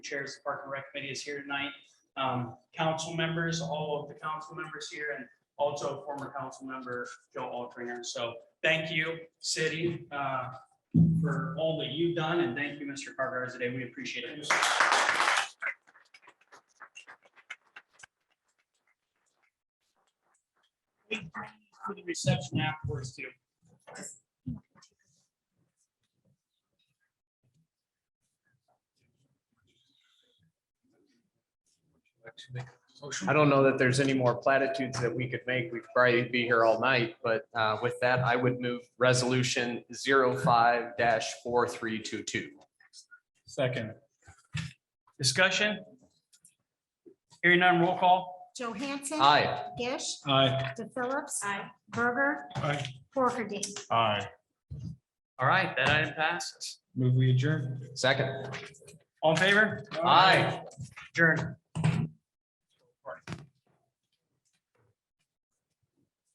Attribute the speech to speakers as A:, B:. A: chairs, the Park and Rec Committee is here tonight. Um, council members, all of the council members here and also former council member Joe Altringer. So thank you, city, uh, for all that you've done and thank you, Mr. Carter, today. We appreciate it. For the reception afterwards too.
B: I don't know that there's any more platitudes that we could make. We'd probably be here all night, but uh, with that, I would move resolution 5 four three two two.
A: Second. Discussion? Hearing none, roll call.
C: Johansson.
B: Aye.
C: Gish.
A: Aye.
C: DePhillips. Berger.
A: Aye.
C: Porkerdy.
D: Aye.
A: All right, that item passes.
D: Move we adjourn.
B: Second.
A: All in favor?
B: Aye.
A: Adjourn.